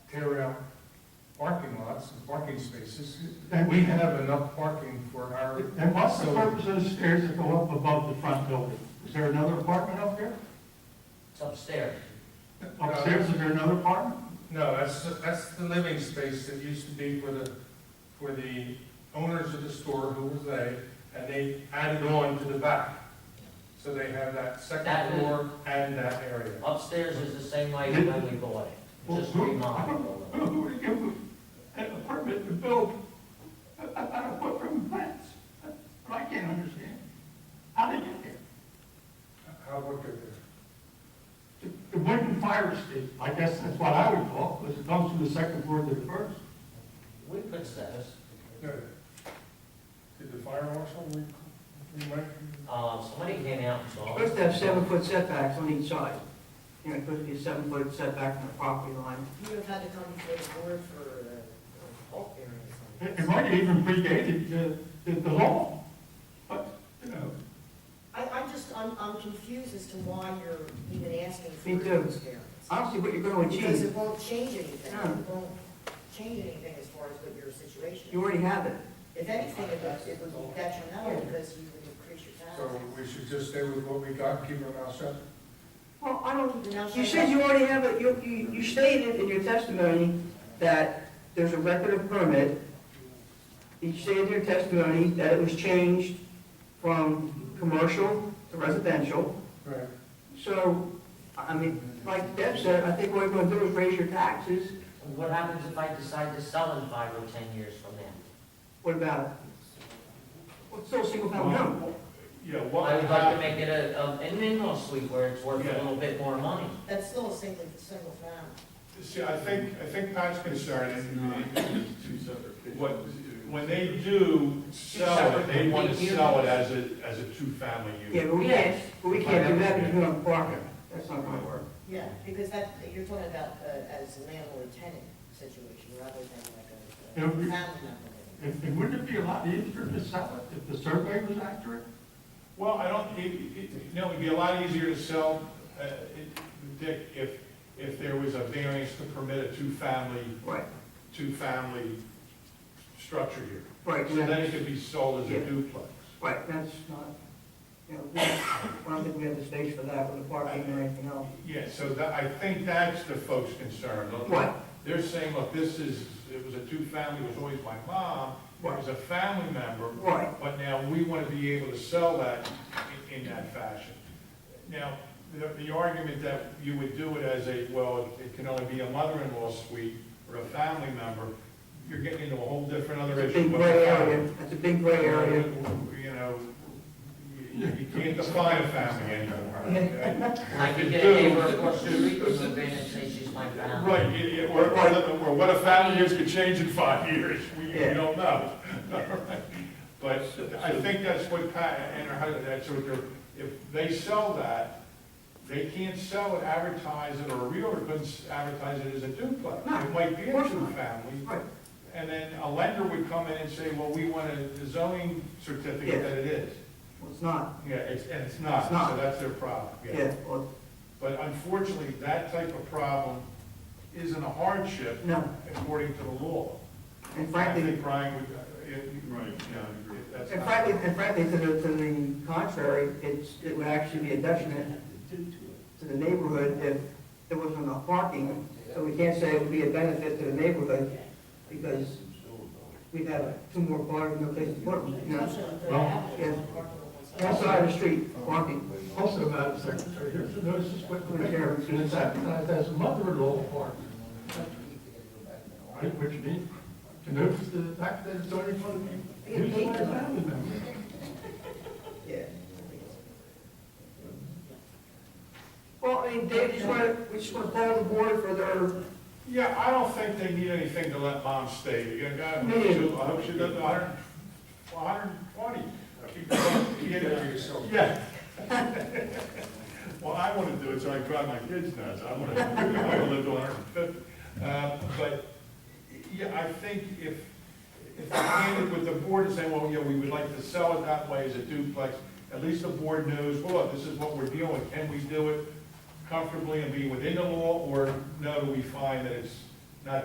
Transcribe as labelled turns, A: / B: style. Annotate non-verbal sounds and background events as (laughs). A: tear out parking lots and parking spaces. We have enough parking for our.
B: And what's the
A: facility.
B: purpose of the stairs that go up above the front building? Is there another apartment up there?
C: It's upstairs.
B: Upstairs, is there another apartment?
A: No, that's, that's the living space that used to be for the, for the owners of the store, who was they, and they added on to the back. So they have that
C: That
A: second
C: is-
A: floor and that area.
C: Upstairs is the same way as when we bought it. It's Just remodeled. a
B: Who
C: little.
B: would give them an apartment to build about a foot from plants? I can't understand. How did you get
A: How would it be?
B: there? The wooden fire escape, I guess that's what I would call it, because it comes from the second floor to the first.
C: We put those,
A: No. Did the fire marshal, we, we might,
C: uh, somebody came out and saw.
D: Supposed to have seven-foot setbacks on each side. You know, it's supposed to be a seven-foot setback from the property line.
E: You have had to come before the board for uh, a bulk variance.
B: It it might have even predated the, the- the law, but, you know.
E: I, I'm just, I'm, I'm confused as to why you're even asking for a
D: Me too.
E: variance.
D: I don't see what you're going to
E: Because
D: achieve.
E: it won't change anything,
D: No.
E: it won't change anything as far as what your situation
D: You
E: is.
D: already have it.
E: If anything, it would- it would be detrimental because you would increase your
A: so
E: taxes.
A: we should just stay with what we got, keep our mouth shut?
D: Well, I don't,
E: Now,
D: you
E: shut up.
D: said you already have it, you, you you stated in your testimony that there's a record of permit. You stated in your testimony that it was changed from commercial to residential.
A: Right.
D: So, I I mean, like Deb said, I think what we're going to do is raise your taxes.
C: What happens if I decide to sell in five or 10 years from now?
D: What about it? Well, it's still a single-family home.
B: Yeah,
C: I would like to make it a, a- an in-law suite where it's worth a
F: uh, Yeah.
C: little bit more money.
E: That's still a single, single family.
F: See, I think, I think Pat's concern is what, when they do sell it, they want to sell it as a, as a two-family
D: Yeah,
F: unit.
D: but we
C: Yes.
D: can't, but we can't do that because we're on Barker. That's not gonna work.
E: Yeah, because that, you're talking about uh, as a landlord-tenant situation rather than
B: Yeah,
E: like a
B: we-
E: family member.
B: And and wouldn't it be a lot easier to sell it if the survey was accurate?
F: Well, I don't, it, it, no, it'd be a lot easier to sell, uh, it- Dick, if, if there was a variance to permit a two-family,
D: Right,
F: two-family structure here.
D: right,
F: So then it could be sold as a duplex.
D: right, that's not, you know, we- I don't think we have the space for that with the parking or anything else.
F: Yeah, so that, I think that's the folks' concern. Look,
D: Right.
F: They're saying, look, this is, it was a two-family, it was always my mom, it was a family member,
D: Right,
F: but now we want to be able to sell that in, in that fashion. Now, the, the argument that you would do it as a, well, it can only be a mother-in-law suite or a family member, you're getting into a whole different other
D: it's a
F: issue.
D: big gray area, that's a big gray area.
F: You know, you you can't define a family
D: (laughs)
F: anymore. okay?
C: I could
F: could
C: get a
F: do-
C: neighbor across the street who would and say she's my family.
F: Right, it- it- or, or the- or what a family is could change in five years, we, we
D: Yeah.
F: don't know. (laughs) But I think that's what Pat, and her husband, that's what they're, if they sell that, they can't sell it, advertise it, or a realtor couldn't s- advertise it as a duplex.
D: No,
F: It might be
D: of
F: a
D: course not.
F: two-family,
D: Right,
F: and then a lender would come in and say, well, we want a zoning
D: Yeah.
F: certificate that it is.
D: well, it's not,
F: Yeah, it's, and it's not,
D: It's not.
F: so that's their problem,
D: yeah, well,
F: But unfortunately, that type of problem isn't a hardship
D: no,
F: according to the law.
D: and
F: I
D: frankly,
F: think Brian would, uh, it, right, yeah, that's
D: and
F: not-
D: frankly, and frankly, to the, to the contrary, it's, it would actually be a detriment to the neighborhood if there wasn't enough parking. So we can't say it would be a benefit to the neighborhood because we'd have two more cars, no place to put them, you know?
E: Well,
D: Outside the street, parking.
B: Also, Madam Secretary, here's a notice of split variance, and it's advertised as a mother-in-law apartment. Right, which means, to notice the fact that it's only one, who's my family member?
D: Yeah. Well, I mean, Dave, just want to, we just want to call the board for their,
F: Yeah, I don't think they need anything to let mom stay, you know, I hope she- I hope she does a hundred, a hundred and twenty. Keep it up,
A: Keep it to
F: yeah.
A: yourself.
F: Yeah. (laughs) Well, I wanna do it, so I drive my kids nuts, I wanna, I wanna live to (laughs) hundred and fifty. Uh, but, yeah, I think if, if they handed with the board and saying, well, yeah, we would like to sell it that way as a duplex, at least the board knows, well, this is what we're dealing, with. can we do it comfortably and be within the law, or no, do we find that it's